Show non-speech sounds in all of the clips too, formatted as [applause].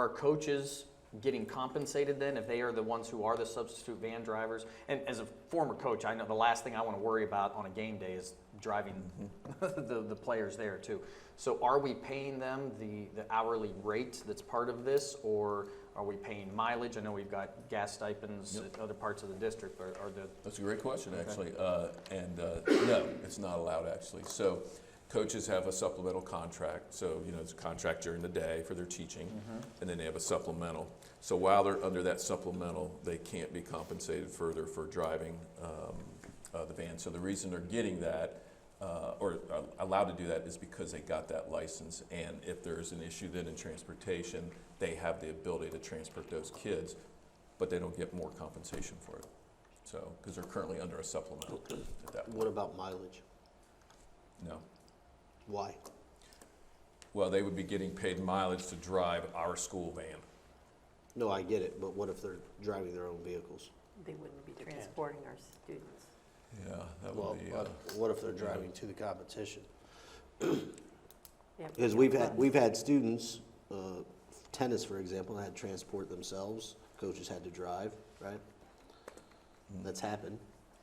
Are coaches getting compensated then if they are the ones who are the substitute van drivers? And as a former coach, I know the last thing I want to worry about on a game day is driving [laughs] the, the players there too. So are we paying them the, the hourly rate that's part of this or are we paying mileage? I know we've got gas stipends at other parts of the district, but are the, That's a great question, actually. Uh, and uh, no, it's not allowed, actually. So coaches have a supplemental contract. So, you know, it's a contract during the day for their teaching, and then they have a supplemental. So while they're under that supplemental, they can't be compensated further for driving um, uh, the van. So the reason they're getting that. Uh, or are allowed to do that is because they got that license, and if there's an issue then in transportation, they have the ability to transport those kids, but they don't get more compensation for it. So, because they're currently under a supplemental at that point. What about mileage? No. Why? Well, they would be getting paid mileage to drive our school van. No, I get it, but what if they're driving their own vehicles? They wouldn't be transporting our students. Yeah, that Well, would be, uh, what, what if they're driving to the competition? They have to Because have we've had, buses. we've had students, uh, tennis, for example, had to transport themselves, coaches had to drive, right? That's happened.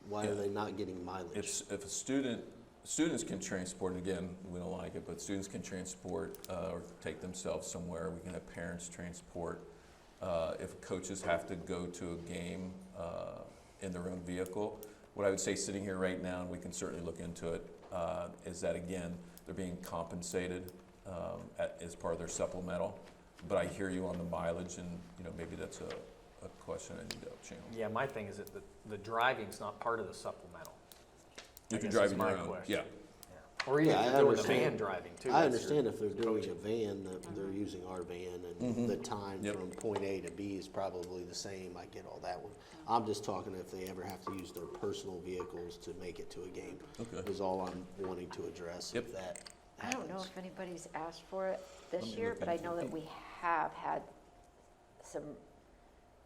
Why Hmm. Yeah. are they not getting mileage? if, if a student, students can transport, and again, we don't like it, but students can transport uh, or take themselves somewhere. We can have parents transport. Uh, if coaches have to go to a game uh, in their own vehicle, what I would say sitting here right now, and we can certainly look into it, uh, is that again, they're being compensated um, at, as part of their supplemental. But I hear you on the mileage, and you know maybe that's a, a question I need to channel. yeah, my thing is that the, the driving's not part of the supplemental. If guess you're that's driving your my own, question. yeah. Yeah. Or even Yeah, if they're I doing the understand. van driving too. I that's your- understand if they're doing a van, that they're using our van, and the time Mm-hmm. Yep. from point A to B is probably the same, I get all that one. I'm just talking if they ever have to use their personal vehicles to make it to a game. Okay. Is all I'm wanting to address, if Yep. that I don't know happens. if anybody's asked for it Let this me year, look but I into know it. that we have had some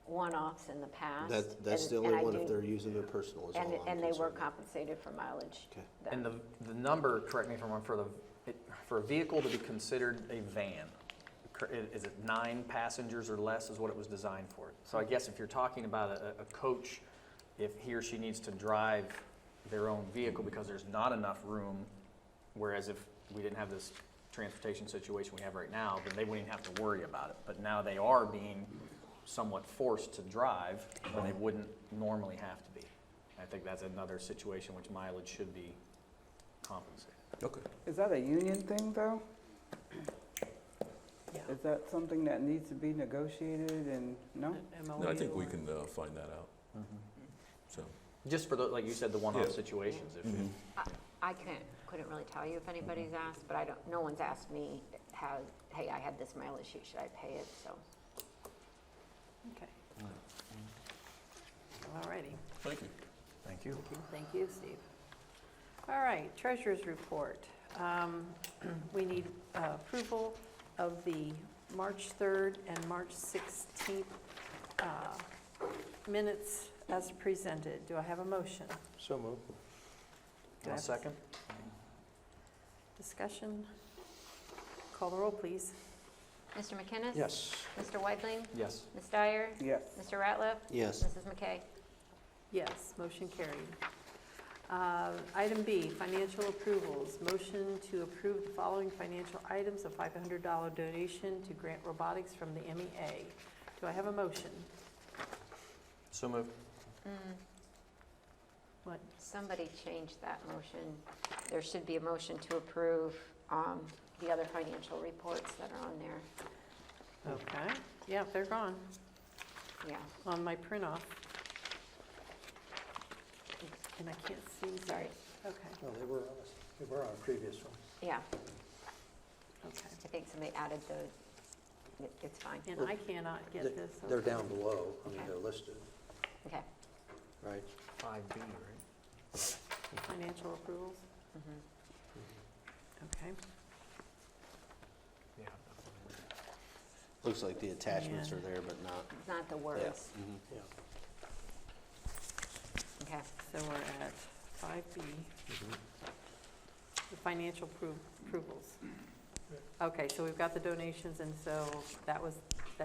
one-offs in the past. That, that's and- the and only I one if do- they're using their personal is all And, I'm and they were concerned. compensated for mileage. Okay. then. And the, the number, correct me if I'm wrong, for the, it- for a vehicle to be considered a van, cor- i- is it nine passengers or less is what it was designed for? So I guess if you're talking about a, a coach, if he or she needs to drive their own vehicle because there's not enough room, whereas if we didn't have this transportation situation we have right now, then they wouldn't have to worry about it. But now they are being somewhat forced to drive when they wouldn't normally have to be. I think that's another situation which mileage should be compensated. Okay. Is that a union thing, though? Yeah. Is that something that needs to be negotiated and, no? No, I MOU think we or- can uh, find that out. Mm-hmm. So, Just for the, like you said, the one-off Yeah. situations. If, I- I couldn't, couldn't really tell you if anybody's Mm-hmm. asked, but I don't, no one's asked me, how, hey, I had this mileage sheet, should I pay it? So Okay. All righty. thank you. Thank you. Thank you, Steve. All right, treasurer's report. Um, [clears throat] We need uh, approval of the March 3rd and March 16th uh, minutes as presented. Do I have a motion? So moved. Do I have second? Discussion? Call the roll, please. Mr. McKinnis? Yes. Mr. Weidling? Yes. Ms. Dyer? Yes. Mr. Ratliff? Yes. Mrs. McKay? Yes, motion carried. Uh, Item B, financial approvals. Motion to approve the following financial items, a $500 donation to Grant Robotics from the MEA. Do I have a motion? So moved. Mm, What? Somebody changed that motion. There should be a motion to approve um, the other financial reports that are on there. Okay, yeah, they're gone Yeah. on my print off. And I can't see, sorry. Sorry. Okay, No, they were on us, they were on a previous one. Yeah, okay. I think somebody added the, it- it's fine. And I cannot get They- this. They're okay. down below, I mean, they're listed, Okay. right? Five B, right? Financial approvals, Mm-hmm. okay. Yeah. Looks like the attachments Yeah. are there, but not, Mm-hmm. It's not the words. Yeah. Okay. So we're at five B. The financial appro- approvals. Okay, so we've got the donations, and so that was